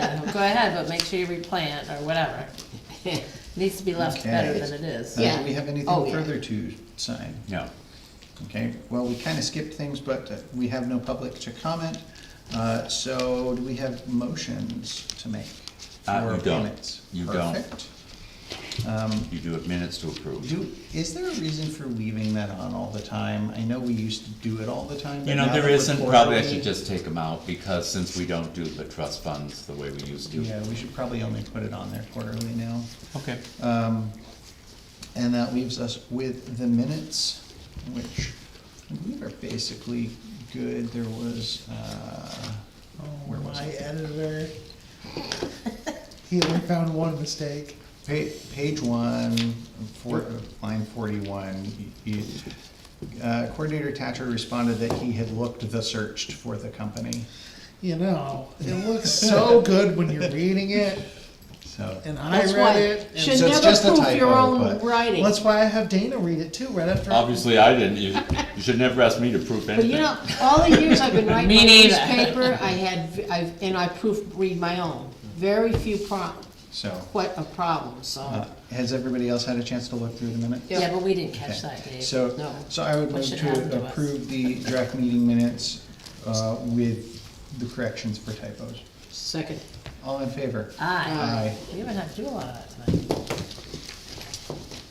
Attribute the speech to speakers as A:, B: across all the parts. A: go ahead, but make sure you replant or whatever. Needs to be left
B: Okay.
A: better than it is.
B: Uh,
C: Yeah.
B: Do we have
C: Oh,
B: anything
C: yeah.
B: further to sign?
D: No.
B: Okay, well, we kind of skipped things, but uh, we have no public to comment. Uh, So do we have motions to make?
D: Uh,
B: for
D: you don't.
B: payments?
D: You don't.
B: Perfect.
D: You do have minutes to approve.
B: Do, is there a reason for leaving that on all the time? I know we used to do it all the time, but
D: You
B: now
D: know,
B: that
D: there
B: we're
D: isn't, probably I
B: quarterly-
D: should just take them out, because since we don't do the trust funds the way we used to.
B: Yeah, we should probably only put it on there quarterly now. Um,
D: Okay.
B: And that leaves us with the minutes, which I believe are basically good. There was, uh, where was
E: My
B: it?
E: editor, he only found one mistake.
B: Pa- Page one, four, line forty-one, you, uh, Coordinator Tatcher responded that he had looked the searched for the company,
E: You know, it looks so good when you're reading it,
B: so.
E: and I
C: That's
E: read
C: why,
E: it. and-
C: should
B: So it's
C: never
B: just a
C: prove your
B: typo,
C: own
B: but-
C: writing.
E: Well, that's why I have Dana read it too, right after.
D: Obviously, I didn't, you, you should never ask me to prove
C: But
D: anything.
C: you know, all the years I've been writing
A: Me
C: my
A: neither.
C: newspaper, I had, I've, and I proofread my own. Very few pro,
B: So,
C: quite a problem,
B: uh,
C: so.
B: has everybody else had a chance to look through the minutes?
C: Yeah.
A: Yeah, but we didn't catch
B: Okay.
A: that, Dave.
C: No.
B: So, so I would
A: What
B: move
A: should happen to
B: to
A: us?
B: approve the draft meeting minutes, uh, with the corrections for typos.
C: Second,
B: All in favor?
A: Aye.
B: Aye.
A: We haven't had to do a lot of that tonight.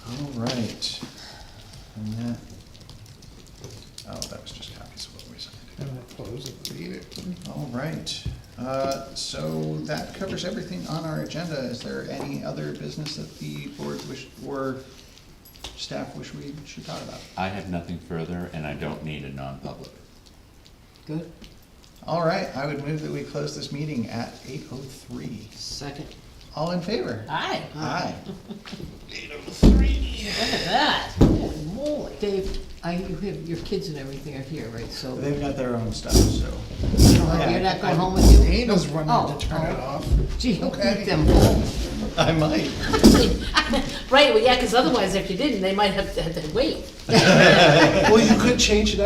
B: All right. And that, oh, that was just copies of what we signed.
E: I'm gonna close it, read it.
B: All right, uh, so that covers everything on our agenda. Is there any other business that the board wish, or staff wish we should talk about?
D: I have nothing further, and I don't need a non-public.
C: good,
B: All right, I would move that we close this meeting at eight oh three.
C: second.
B: All in favor?
A: Aye,
B: Aye.
A: look at that.
C: Holy moly. Dave, I, you have, your kids and everything are here, right, so, oh,
B: They've got their own stuff, so.
C: you're not going home with you?
E: Dana's running
C: Oh,
E: to turn it
C: oh.
E: off.
C: Gee, you'll
E: Okay.
C: keep them home.
B: I might.
C: Right, well, yeah, because otherwise if you didn't, they might have to, have to wait.
E: Well, you could change it up.